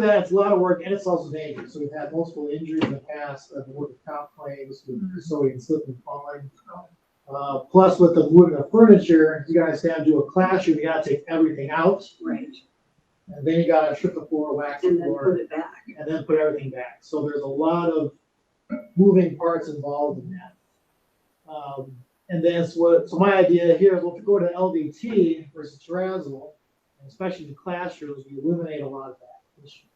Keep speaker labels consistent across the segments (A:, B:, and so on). A: that, it's a lot of work and it's also dangerous. So we've had multiple injuries in the past of the workers' comp claims,
B: Mm-hmm.
A: with so we can slip and falling. Uh, plus with the moving of furniture, you guys have to do a classroom, you gotta take everything out
B: Right,
A: and then you gotta strip the floor, wax the
B: and then
A: floor,
B: put it back.
A: and then put everything back. So there's a lot of moving parts involved in that. Um, and that's what, so my idea here, well, if you go to LVT versus terrazzo, especially the classrooms, you eliminate a lot of that. issue.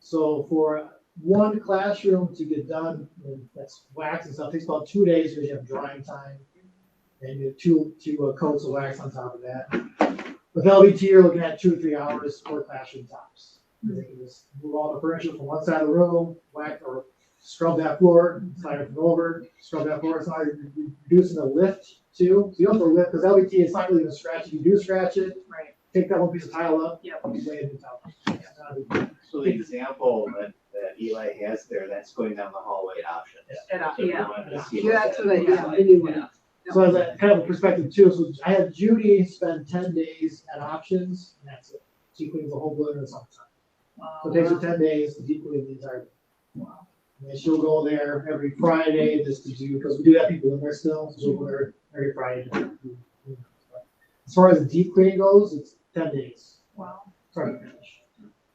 A: So for one classroom to get done, and that's wax and stuff, takes about two days because you have drying time. And you have two, two uh, coats of wax on top of that. With LVT, you're looking at two, or three hours for classroom tops. They can just move all the furniture from one side of the room, whack or scrub that floor, slide it over, scrub that floor, so you're you're reducing the lift too. So you don't have to lift, because LVT is not really gonna scratch, if you do scratch it,
B: Right.
A: take that one piece of tile up,
B: Yep.
A: and lay it in the tile.
C: So the example that, that Eli has there, that's going down the hallway option. So we
B: Yeah,
C: wanted to see what
B: that's
C: that
B: what I,
C: looks
B: yeah,
C: like.
B: anyway.
A: So as a kind of a perspective too, so I had Judy spend ten days at options, and that's it. She cleans the whole building in some time. So it takes her ten days to deep clean the entire. building. And then she'll go there every Friday just to do, because we do have people in there still, so she'll go there every Friday. to do- do that. But As far as the deep clean goes, it's ten days,
B: Wow.
A: start to finish.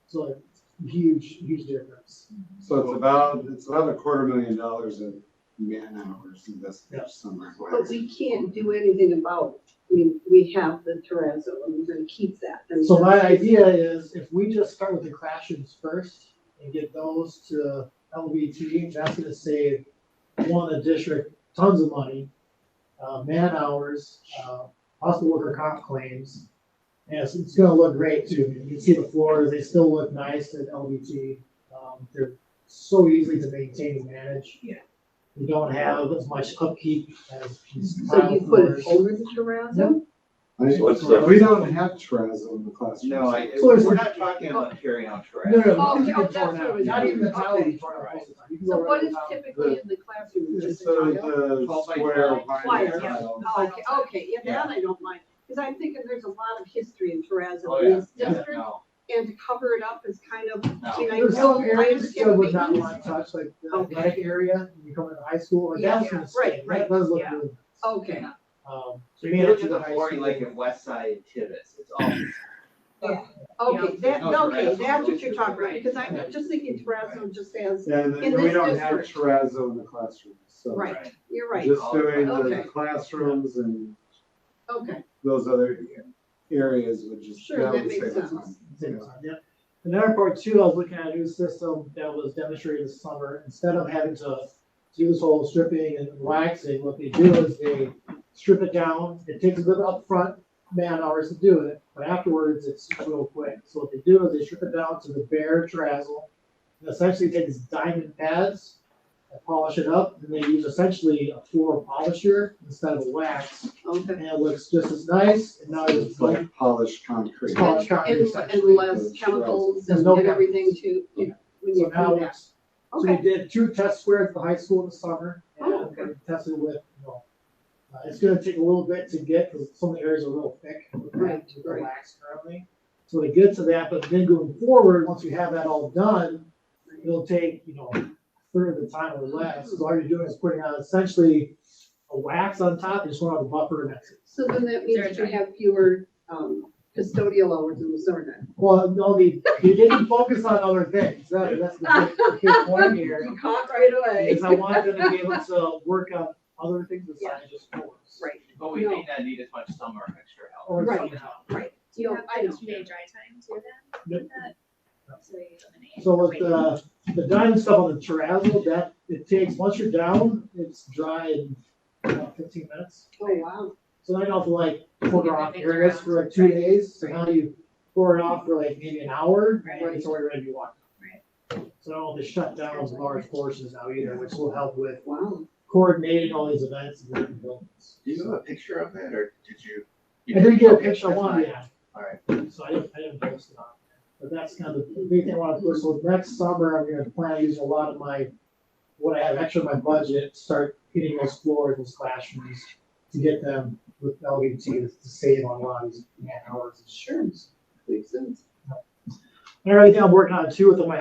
A: So it's a huge, huge difference.
D: So it's about, it's about a quarter million dollars in man hours invested
A: Yeah.
D: somewhere.
B: But we can't do anything about, it. I mean, we have the terrazzo, and we're gonna keep that. I mean,
A: So my
B: that's-
A: idea is if we just start with the classrooms first and get those to LVT, that's gonna save one, the district tons of money, uh, man hours, uh, hospital worker comp claims. And it's, it's gonna look great too. You can see the floors, they still look nice at LVT. Um, they're so easy to maintain and manage.
B: Yeah.
A: You don't have as much upkeep as. these
B: So you
A: tile
B: put it
A: floors.
B: over the terrazzo?
D: I-
C: What's the-
D: We don't have terrazzo in the classroom.
C: No, I,
A: So there's-
C: we're not talking about carrying out trash.
A: No, no,
B: Oh,
A: no, you
B: oh,
A: get
B: that's
A: torn
B: what it
A: out.
B: was.
A: Not even the towel
B: Okay.
A: you torn out most of the time. You can
B: So
A: go right
B: what
A: to
B: is
A: the towel.
B: typically in the classroom,
D: It's
B: just
D: sort
B: the
D: of
B: tile?
D: the
C: Twelve by
D: square
C: twelve.
B: Wire,
D: vinyl
B: yeah.
D: tile.
B: Oh, Okay, okay, yeah,
C: Yeah.
B: that I don't mind, because I'm thinking there's a lot of history in
C: Oh,
B: terrazzo in
C: yeah,
B: this
C: yeah,
B: district,
C: no,
B: and to cover it up is kind of, I
C: no.
B: mean, I
A: There's
B: know,
A: some
B: I
A: areas that still
B: understand
A: would not
B: maintenance.
A: want to touch, like the
B: Okay.
A: athletic area, when you come into high school, like
B: Yeah,
A: that's
B: yeah,
A: gonna
B: right,
A: stay. That
B: right,
A: does look
B: yeah.
A: really nice.
B: Okay,
A: Um,
C: So
A: being
C: you
A: up
C: look
A: to
C: at the
A: high
C: flooring
A: school-
C: like in West Side Tibbetts, it's all
B: okay, that,
C: No,
B: okay,
C: terrazzo.
B: that's what you're talking about,
C: Right.
B: because I'm just thinking terrazzo just as,
D: And
B: In
D: and we
B: this
D: don't have
B: district.
D: terrazzo in the classroom, so.
B: Right. you're right,
D: Just
C: Oh,
D: doing
B: Okay.
D: the classrooms and
B: okay,
D: those other areas would just.
B: Sure, that
D: would
B: makes
D: save us
B: sense.
D: money.
A: same time, yeah. Another part too, I was looking at a new system that was demonstrated this summer, instead of having to do this whole stripping and waxing, what they do is they strip it down, it takes a bit of upfront man hours to do it, but afterwards it's real quick. So what they do is they strip it down to the bare terrazzo, and essentially take these diamond pads and polish it up, and they use essentially a floor polisher instead of wax,
B: okay.
A: and it looks just as nice, and now it's
D: It's
A: like
D: like polished concrete.
A: It's polished concrete,
B: And, and
A: essentially.
B: less chemicals
A: There's
B: and
A: no
B: and everything to,
A: Yeah.
B: when you
A: So
B: do
A: now
B: that,
A: it's, so we
B: okay,
A: did two test squares at the high school in the summer,
B: Oh,
A: and
B: okay.
A: we tested with, you know, uh, it's gonna take a little bit to get, because some of the areas are real thick. with that,
B: Right,
A: with the
B: right.
A: wax currently. So to get to that, but then going forward, once we have that all done, it'll take, you know, a third of the time or less, so all you're doing is putting out essentially a wax on top, you just want to have a buffer and that's it.
B: so then that means you have fewer, um, custodial hours in the summer then.
A: Well, no, they, they didn't focus on other things, that, that's the big, the big point here.
B: You caught right away.
A: Because I wanted them to be able to work on other things besides just sports.
B: Right,
C: But we may not need as much summer extra help.
A: Or
B: Right.
A: something else.
B: right.
E: Do you
B: No,
E: have
B: I
E: to
B: don't.
E: May dry time too
A: Yep.
E: then? That- So you eliminate.
A: So with
E: wait.
A: the, the diamond stuff on the terrazzo, that, it takes, once you're down, it's dry in about fifteen minutes.
B: Oh, wow.
A: So then you don't have to like pour it off
E: Moving
A: areas
E: around.
A: for like two
E: Right.
A: days, so now you pour it off for like maybe an hour,
E: Right.
A: and it's already ready to be washed. So I don't have to shut down those large portions now either, which will help with
B: Wow.
A: coordinating all these events and different buildings.
C: Do you have a picture of that, or did you? you
A: I did get a
C: okay,
A: picture, I
C: that's
A: wanted,
C: fine.
A: yeah.
C: All right.
A: So I didn't, I didn't post it on, there. but that's kind of the big thing I wanna do, so next summer, I'm gonna plan to use a lot of my, what I have extra in my budget, start hitting those floors, those classrooms, to get them with LVT to save on a lot of these man hours.
B: Sure. Makes sense.
A: And everything I'm working on too with my